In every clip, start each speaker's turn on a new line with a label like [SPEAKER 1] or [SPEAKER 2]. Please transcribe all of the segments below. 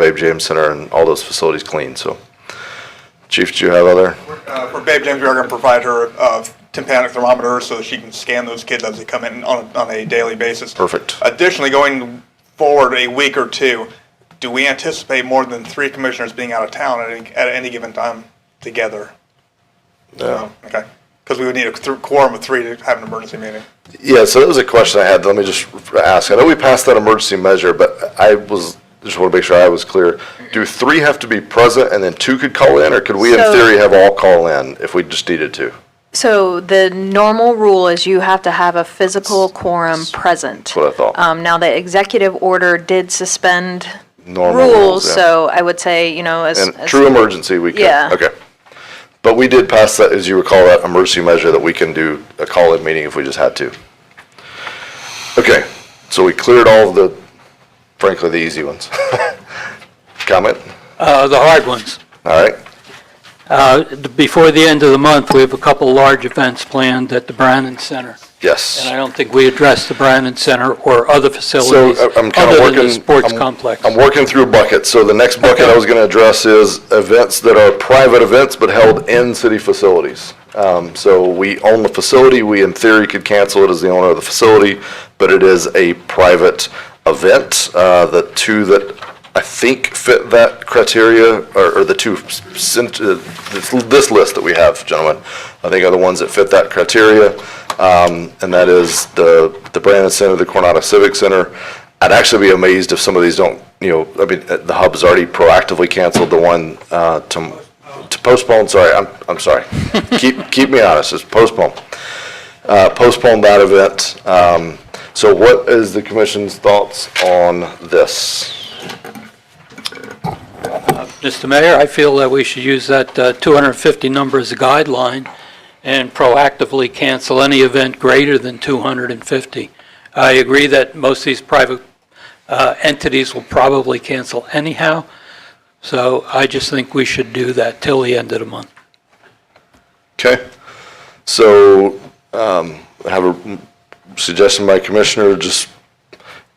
[SPEAKER 1] Babe James Center and all those facilities clean, so. Chief, do you have other?
[SPEAKER 2] Uh, For Babe James, we are going to provide her uh, tympanic thermometers so that she can scan those kids as they come in on a- on a daily basis.
[SPEAKER 1] Perfect.
[SPEAKER 2] Additionally, going forward a week or two, do we anticipate more than three commissioners being out of town at any- at any given time together?
[SPEAKER 1] No.
[SPEAKER 2] Okay, because we would need a th- quorum of three to have an emergency meeting.
[SPEAKER 1] Yeah, so that was a question I had. Let me just ask. I know we passed that emergency measure, but I was, just want to make sure I was clear. Do three have to be present and then two could call in, or could we in
[SPEAKER 3] So-
[SPEAKER 1] theory have all call in if we just needed to?
[SPEAKER 3] So the normal rule is you have to have a physical quorum present. That's
[SPEAKER 1] what I thought.
[SPEAKER 3] Um, now, the executive order did suspend
[SPEAKER 1] Normal rules,
[SPEAKER 3] rules,
[SPEAKER 1] yeah.
[SPEAKER 3] so I would say, you know, as.
[SPEAKER 1] And
[SPEAKER 3] as-
[SPEAKER 1] true emergency, we could,
[SPEAKER 3] Yeah.
[SPEAKER 1] okay. But we did pass that, as you recall, that emergency measure that we can do a call-in meeting if we just had to. Okay, so we cleared all the, frankly, the easy ones. Comment?
[SPEAKER 4] Uh, The hard ones.
[SPEAKER 1] All right,
[SPEAKER 4] Uh, Before the end of the month, we have a couple large events planned at the Brannan Center.
[SPEAKER 1] yes.
[SPEAKER 4] And I don't think we addressed the Brannan Center or other
[SPEAKER 1] So
[SPEAKER 4] facilities
[SPEAKER 1] I- I'm kind of
[SPEAKER 4] other than the
[SPEAKER 1] working.
[SPEAKER 4] sports
[SPEAKER 1] I'm-
[SPEAKER 4] complex.
[SPEAKER 1] I'm working through buckets. So the next bucket I was going to address is events that are private events but held in city facilities. Um, So we own the facility, we in theory could cancel it as the owner of the facility, but it is a private event. Uh, The two that I think fit that criteria are are the two, s- sent- uh, this this list that we have, gentlemen, I think are the ones that fit that criteria. Um, And that is the the Brandon Center, the Coronado Civic Center, I'd actually be amazed if some of these don't, you know, I mean, uh, the hub's already proactively canceled the one uh, to to postpone, sorry, I'm, I'm sorry. Keep, keep me honest, it's postpone. Uh, Postpone that event. Um, So what is the commission's thoughts on this?
[SPEAKER 4] Mr. Mayor, I feel that we should use that uh, 250 number as a guideline and proactively cancel any event greater than 250. I agree that most of these private uh, entities will probably cancel anyhow, so I just think we should do that till the end of the month.
[SPEAKER 1] Okay? So um, I have a suggestion by Commissioner, just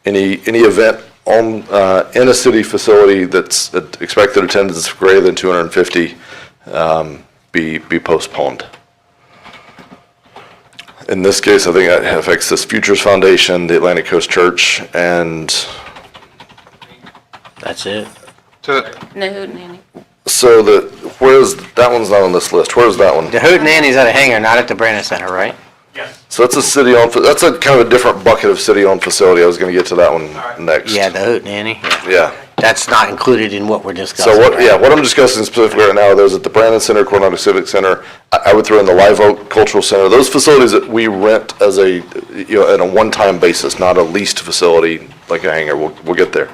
[SPEAKER 1] any, any event on, uh, in a city facility that's that expected attendance greater than 250 um, be, be postponed. In this case, I think that affects this Futures Foundation, the Atlantic Coast Church, and
[SPEAKER 5] That's it.
[SPEAKER 6] No, Nanny.
[SPEAKER 1] so the, where's, that one's not on this list. Where's that one?
[SPEAKER 5] The Hoot Nanny's at a hangar, not at the Brandon Center, right?
[SPEAKER 1] So that's a city-owned, fa- that's a kind of a different bucket of city-owned facility. I was gonna get to that one next.
[SPEAKER 5] Yeah, the Hoot Nanny. yeah.
[SPEAKER 1] Yeah.
[SPEAKER 5] That's not included in what we're discussing.
[SPEAKER 1] So what,
[SPEAKER 5] right?
[SPEAKER 1] yeah, what I'm discussing specifically right now are those at the Brandon Center, Coronado Civic Center. I, I would throw in the Live Oak Cultural Center, those facilities that we rent as a, you know, at a one-time basis, not a leased facility like a hangar. We'll, we'll get there.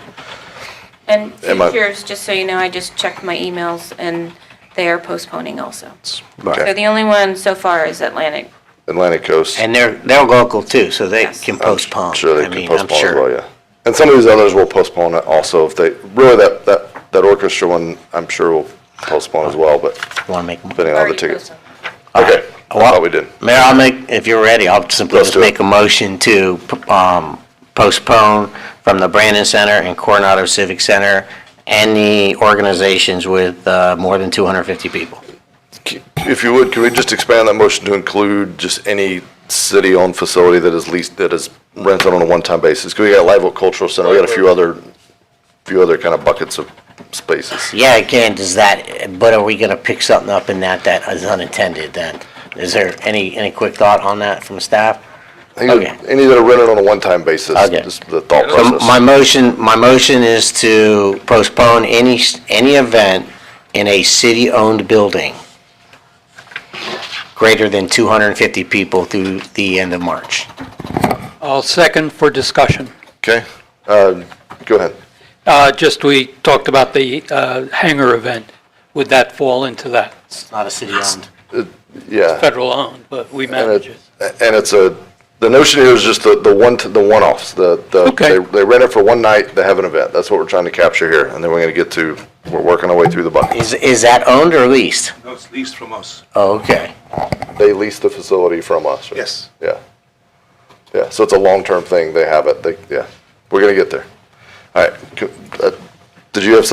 [SPEAKER 6] And
[SPEAKER 1] Am I-
[SPEAKER 6] futures, just so you know, I just checked my emails and they are postponing also. So
[SPEAKER 1] Okay.
[SPEAKER 6] the only one so far is Atlantic.
[SPEAKER 1] Atlantic Coast.
[SPEAKER 5] And they're, they're local too, so they
[SPEAKER 6] Yes.
[SPEAKER 5] can postpone.
[SPEAKER 1] Sure,
[SPEAKER 5] I
[SPEAKER 1] they can
[SPEAKER 5] mean, I'm
[SPEAKER 1] postpone as
[SPEAKER 5] sure.
[SPEAKER 1] well, yeah. And some of these others will postpone it also if they, really that, that, that orchestra one, I'm sure will postpone as well, but
[SPEAKER 5] Want to make, a mo-
[SPEAKER 1] depending on the
[SPEAKER 6] Already
[SPEAKER 1] tickets.
[SPEAKER 6] postponed.
[SPEAKER 1] Okay, I
[SPEAKER 5] Well-
[SPEAKER 1] thought we did.
[SPEAKER 5] Mayor, I'll make, if you're ready, I'll simply
[SPEAKER 1] Let's
[SPEAKER 5] just
[SPEAKER 1] do it.
[SPEAKER 5] make a motion to p- um, postpone from the Brandon Center and Coronado Civic Center any organizations with uh, more than 250 people.
[SPEAKER 1] If you would, could we just expand that motion to include just any city-owned facility that is leased, that is rented on a one-time basis? 'Cause we got Live Oak Cultural Center, we got a few other, few other kind of buckets of spaces.
[SPEAKER 5] Yeah, again, does that, but are we gonna pick something up in that that is unintended then? Is there any, any quick thought on that from staff?
[SPEAKER 1] I think
[SPEAKER 5] Okay.
[SPEAKER 1] Any that are rented on a one-time basis,
[SPEAKER 5] Okay.
[SPEAKER 1] just the thought
[SPEAKER 5] So
[SPEAKER 1] process.
[SPEAKER 5] my motion, my motion is to postpone any, s- any event in a city-owned building greater than two hundred and fifty people through the end of March.
[SPEAKER 4] I'll second for discussion.
[SPEAKER 1] Okay, uh, go ahead.
[SPEAKER 4] Uh, Just, we talked about the uh, hangar event. Would that fall into that? It's
[SPEAKER 5] Not a city-owned.
[SPEAKER 1] Yeah.
[SPEAKER 4] Federal owned, but we
[SPEAKER 1] And
[SPEAKER 4] manage it.
[SPEAKER 1] it- and it's a, the notion here is just the, the one, the one-offs, the, the, they
[SPEAKER 4] Okay.
[SPEAKER 1] they rent it for one night, they have an event, that's what we're trying to capture here, and then we're gonna get to, we're working our way through the buckets.
[SPEAKER 5] Is, is that owned or leased?
[SPEAKER 7] No, it's leased from us.
[SPEAKER 5] Oh, okay.
[SPEAKER 1] They lease the facility from us, right?
[SPEAKER 7] Yes.
[SPEAKER 1] Yeah. Yeah, so it's a long-term thing, they have it, they, yeah, we're gonna get there. All right, co- uh, did you have